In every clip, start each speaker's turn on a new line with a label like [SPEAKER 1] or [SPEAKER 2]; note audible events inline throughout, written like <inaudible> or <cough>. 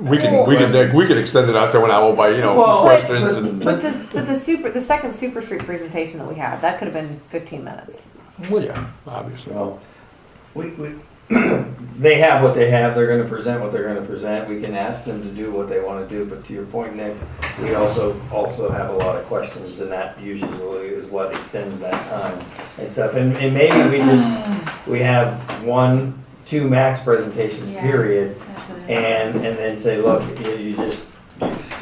[SPEAKER 1] We can, we can, we can extend it out to an hour by, you know,
[SPEAKER 2] Well,
[SPEAKER 1] questions
[SPEAKER 2] but-
[SPEAKER 1] and,
[SPEAKER 3] But this, but the super, the second Super Street presentation that we had, that could have been fifteen minutes.
[SPEAKER 1] well, yeah, obviously.
[SPEAKER 2] Well,
[SPEAKER 4] We, we, <clears throat> they have what they have, they're gonna present what they're gonna present, we can ask them to do what they wanna do, but to your point, Nick, we also, also have a lot of questions, and that usually is what extends that time and stuff, and, and maybe we just, we have one, two max presentations,
[SPEAKER 5] Yeah.
[SPEAKER 4] period,
[SPEAKER 5] That's what it is.
[SPEAKER 4] and, and then say, look, you, you just,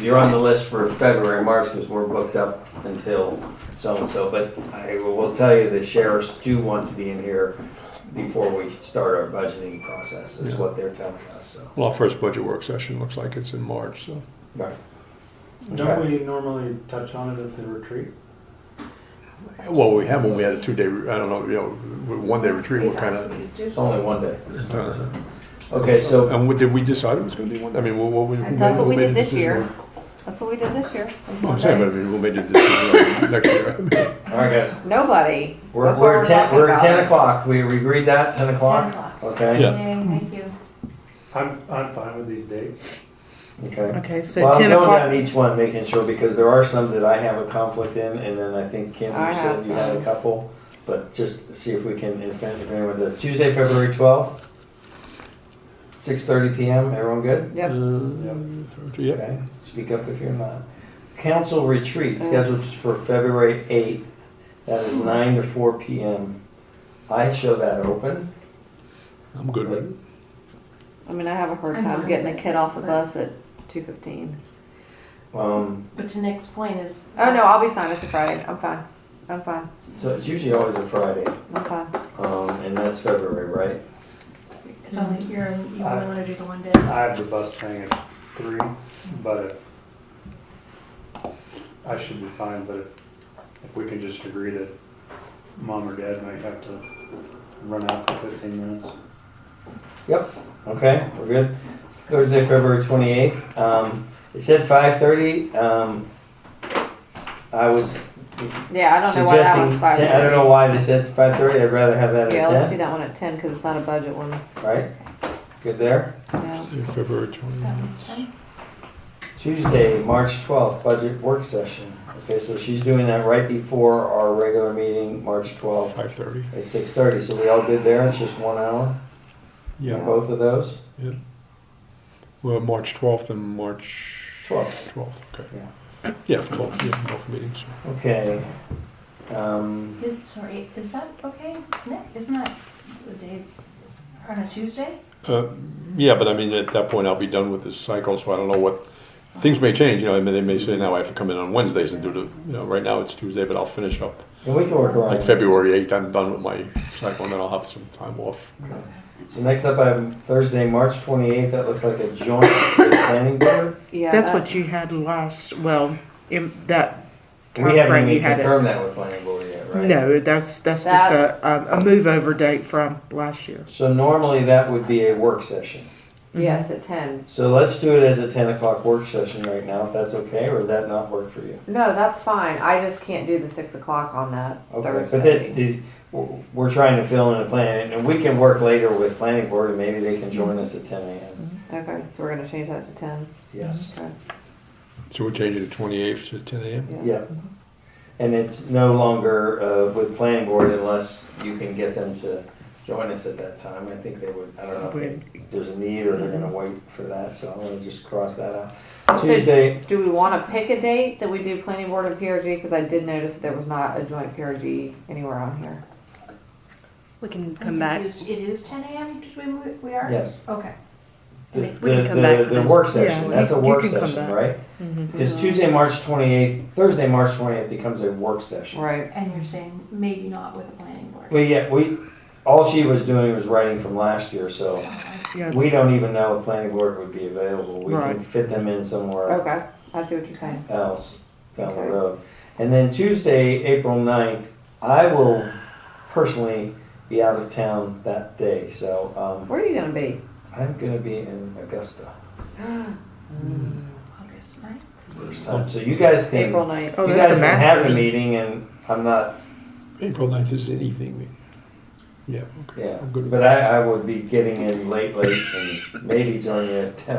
[SPEAKER 4] you're on the list for February, March, because we're booked up until so-and-so, but I will tell you, the sheriffs do want to be in here before we start our budgeting process, is what they're telling us, so.
[SPEAKER 1] Well, our first budget work session looks like it's in March, so.
[SPEAKER 4] Right.
[SPEAKER 6] Don't we normally touch on it at the retreat?
[SPEAKER 1] Well, we have, when we had a two-day, I don't know, you know, one-day retreat, what kind of,
[SPEAKER 4] It's only one day. Okay, so,
[SPEAKER 1] and what, did we decide it was gonna be one, I mean, what, what? we-
[SPEAKER 3] And That's what
[SPEAKER 1] who
[SPEAKER 3] we
[SPEAKER 1] made
[SPEAKER 3] did
[SPEAKER 1] the
[SPEAKER 3] this year.
[SPEAKER 1] decision?
[SPEAKER 3] That's what we did this year.
[SPEAKER 7] Oh,
[SPEAKER 1] I'm saying, but I mean, who made the decision <laughs> next year?
[SPEAKER 4] all right, guys,
[SPEAKER 3] Nobody.
[SPEAKER 4] we're,
[SPEAKER 3] That's what
[SPEAKER 4] we're ten,
[SPEAKER 3] talking
[SPEAKER 4] we're
[SPEAKER 3] about.
[SPEAKER 4] ten o'clock, we we agreed that, ten o'clock?
[SPEAKER 5] 10 o'clock.
[SPEAKER 4] Okay,
[SPEAKER 1] Yeah.
[SPEAKER 5] Yay, thank you.
[SPEAKER 6] I'm, I'm fine with these dates.
[SPEAKER 4] okay.
[SPEAKER 7] Okay, so
[SPEAKER 4] Well, I'm
[SPEAKER 7] ten
[SPEAKER 4] going
[SPEAKER 7] o'clock.
[SPEAKER 4] down each one, making sure, because there are some that I have a conflict in, and then I think Kim,
[SPEAKER 3] I
[SPEAKER 4] you said
[SPEAKER 3] have
[SPEAKER 4] you had a
[SPEAKER 3] some.
[SPEAKER 4] couple, but just see if we can, if if anyone does. Tuesday, February twelfth, six thirty PM, everyone good?
[SPEAKER 3] Yep.
[SPEAKER 1] Uh, Yeah,
[SPEAKER 4] Okay, speak up if you're not. Council
[SPEAKER 3] Uh.
[SPEAKER 4] retreat scheduled for February eighth, that
[SPEAKER 3] Hmm.
[SPEAKER 4] is nine to four PM. I show that open.
[SPEAKER 1] I'm good with it.
[SPEAKER 3] I mean, I have a hard
[SPEAKER 5] I'm
[SPEAKER 3] time
[SPEAKER 5] fine
[SPEAKER 3] getting
[SPEAKER 5] with
[SPEAKER 3] a
[SPEAKER 5] it,
[SPEAKER 3] kid off the
[SPEAKER 5] but-
[SPEAKER 3] bus at two fifteen.
[SPEAKER 4] Um,
[SPEAKER 5] But to Nick's point is.
[SPEAKER 3] Oh, no, I'll be fine. It's a Friday. I'm fine. I'm fine.
[SPEAKER 4] so it's usually always a Friday,
[SPEAKER 3] I'm fine.
[SPEAKER 4] um, and that's February, right?
[SPEAKER 5] It's only here and you
[SPEAKER 6] Uh,
[SPEAKER 5] only wanna do the one day.
[SPEAKER 6] I have the bus thing at three, but I should be fine, but if, if we can just agree that mom or dad might have to run out for fifteen minutes.
[SPEAKER 4] Okay, we're good. Thursday, February twenty-eighth, um, it said five thirty, um, I was
[SPEAKER 3] Yeah, I don't know why that
[SPEAKER 4] suggesting,
[SPEAKER 3] one's five.
[SPEAKER 4] ten- I don't know why they said five thirty, I'd rather have that
[SPEAKER 3] Yeah, let's
[SPEAKER 4] at
[SPEAKER 3] do
[SPEAKER 4] ten,
[SPEAKER 3] that one at ten because it's not a budget one.
[SPEAKER 4] right? Good there.
[SPEAKER 3] Yeah.
[SPEAKER 1] Say February twenty.
[SPEAKER 5] That one's ten.
[SPEAKER 4] Tuesday, March twelfth, budget work session. Okay, so she's doing that right before our regular meeting, March twelfth,
[SPEAKER 1] Five thirty,
[SPEAKER 4] at six thirty, so we all good there, it's just one hour,
[SPEAKER 1] yeah.
[SPEAKER 4] both of those?
[SPEAKER 1] Well, March 12th and March
[SPEAKER 4] 12th.
[SPEAKER 1] 12th, okay. Yeah, for both, yeah, for both meetings.
[SPEAKER 4] Okay. Um,
[SPEAKER 5] Is- Sorry, is that okay, Nick? Isn't that the day, on a Tuesday?
[SPEAKER 1] Uh, Yeah, but I mean, at that point, I'll be done with this cycle, so I don't know what, things may change, you know, I mean, they may say, now I have to come in on Wednesdays and do the, you know, right now it's Tuesday, but I'll finish up.
[SPEAKER 4] and we can work around
[SPEAKER 1] Like
[SPEAKER 4] it.
[SPEAKER 1] February 8th, I'm done with my cycle, and then I'll have some time off.
[SPEAKER 4] So next up, I have Thursday, March twenty-eighth, that looks like a joint <coughs> with planning board.
[SPEAKER 3] Yeah. uh,
[SPEAKER 7] That's
[SPEAKER 8] uh,
[SPEAKER 3] that-
[SPEAKER 7] what you had last, well, in that
[SPEAKER 4] We
[SPEAKER 7] time frame
[SPEAKER 4] haven't
[SPEAKER 7] you
[SPEAKER 4] even
[SPEAKER 7] had it.
[SPEAKER 4] confirmed that with planning board yet, right?
[SPEAKER 7] No, that's, that's just
[SPEAKER 3] That-
[SPEAKER 7] a, um, a move over date from last year.
[SPEAKER 4] So normally that would be a work session.
[SPEAKER 3] Yes, at ten.
[SPEAKER 4] So let's do it as a ten o'clock work session right now, if that's okay, or does that not work for you?
[SPEAKER 3] No, that's fine. I just can't do the six o'clock on that
[SPEAKER 4] Okay, but that,
[SPEAKER 3] Thursday.
[SPEAKER 4] the, we're- we're trying to fill in a plan, and we can work later with planning board, and maybe they can join us at ten AM.
[SPEAKER 7] Mm-hmm.
[SPEAKER 3] Okay, so we're gonna change that to ten.
[SPEAKER 4] Yes,
[SPEAKER 3] Okay.
[SPEAKER 1] So we're changing to 28th to 10 AM?
[SPEAKER 3] Yeah.
[SPEAKER 4] yeah. And it's no longer, uh, with planning board unless you can get them to join us at that time, I think they would, I don't know if they- there's a need or they're gonna wait for that, so I'm gonna just cross that out.
[SPEAKER 3] So-
[SPEAKER 4] Tuesday,
[SPEAKER 3] Do we want to pick a date that we do planning board and PRG? Because I did notice that there was not a joint PRG anywhere on here.
[SPEAKER 8] We can
[SPEAKER 5] I'm
[SPEAKER 8] come back.
[SPEAKER 5] confused. It is ten AM, did we, move- we are?
[SPEAKER 4] yes,
[SPEAKER 5] Okay.
[SPEAKER 4] the,
[SPEAKER 8] We can
[SPEAKER 4] the,
[SPEAKER 8] come back
[SPEAKER 4] the-
[SPEAKER 8] to
[SPEAKER 4] the
[SPEAKER 8] this.
[SPEAKER 4] work session,
[SPEAKER 7] Yeah,
[SPEAKER 4] that's a
[SPEAKER 7] you
[SPEAKER 4] work
[SPEAKER 7] can come
[SPEAKER 4] session,
[SPEAKER 7] back.
[SPEAKER 4] right?
[SPEAKER 7] Mhm.
[SPEAKER 3] Mm-hmm.
[SPEAKER 4] Cause Tuesday, March twenty-eighth, Thursday, March twenty-eighth becomes a work session.
[SPEAKER 3] Right.
[SPEAKER 5] And you're saying maybe not with the planning board?
[SPEAKER 4] But yeah, we, all she was doing was writing from last year, so
[SPEAKER 5] Oh, I see.
[SPEAKER 7] Yeah,
[SPEAKER 4] we don't even know if planning board would be available. We can
[SPEAKER 7] Right.
[SPEAKER 4] fit them in somewhere
[SPEAKER 3] Okay, I see what you're saying.
[SPEAKER 4] else down the
[SPEAKER 3] Okay.
[SPEAKER 4] road. And then Tuesday, April 9th, I will personally be out of town that day, so um,
[SPEAKER 3] Where are you gonna
[SPEAKER 4] <gasps>
[SPEAKER 3] be?
[SPEAKER 4] I'm gonna be in Augusta.
[SPEAKER 5] August ninth?
[SPEAKER 4] first time. So you guys can,
[SPEAKER 3] April
[SPEAKER 4] you
[SPEAKER 3] ninth.
[SPEAKER 7] Oh,
[SPEAKER 4] guys
[SPEAKER 7] that's the
[SPEAKER 4] can have the
[SPEAKER 7] masters.
[SPEAKER 4] meeting and I'm not,
[SPEAKER 1] April 9th is an evening meeting. Yeah, okay.
[SPEAKER 4] yeah.
[SPEAKER 1] I'm good with
[SPEAKER 4] But I, I would be getting in late, late and maybe joining at 10.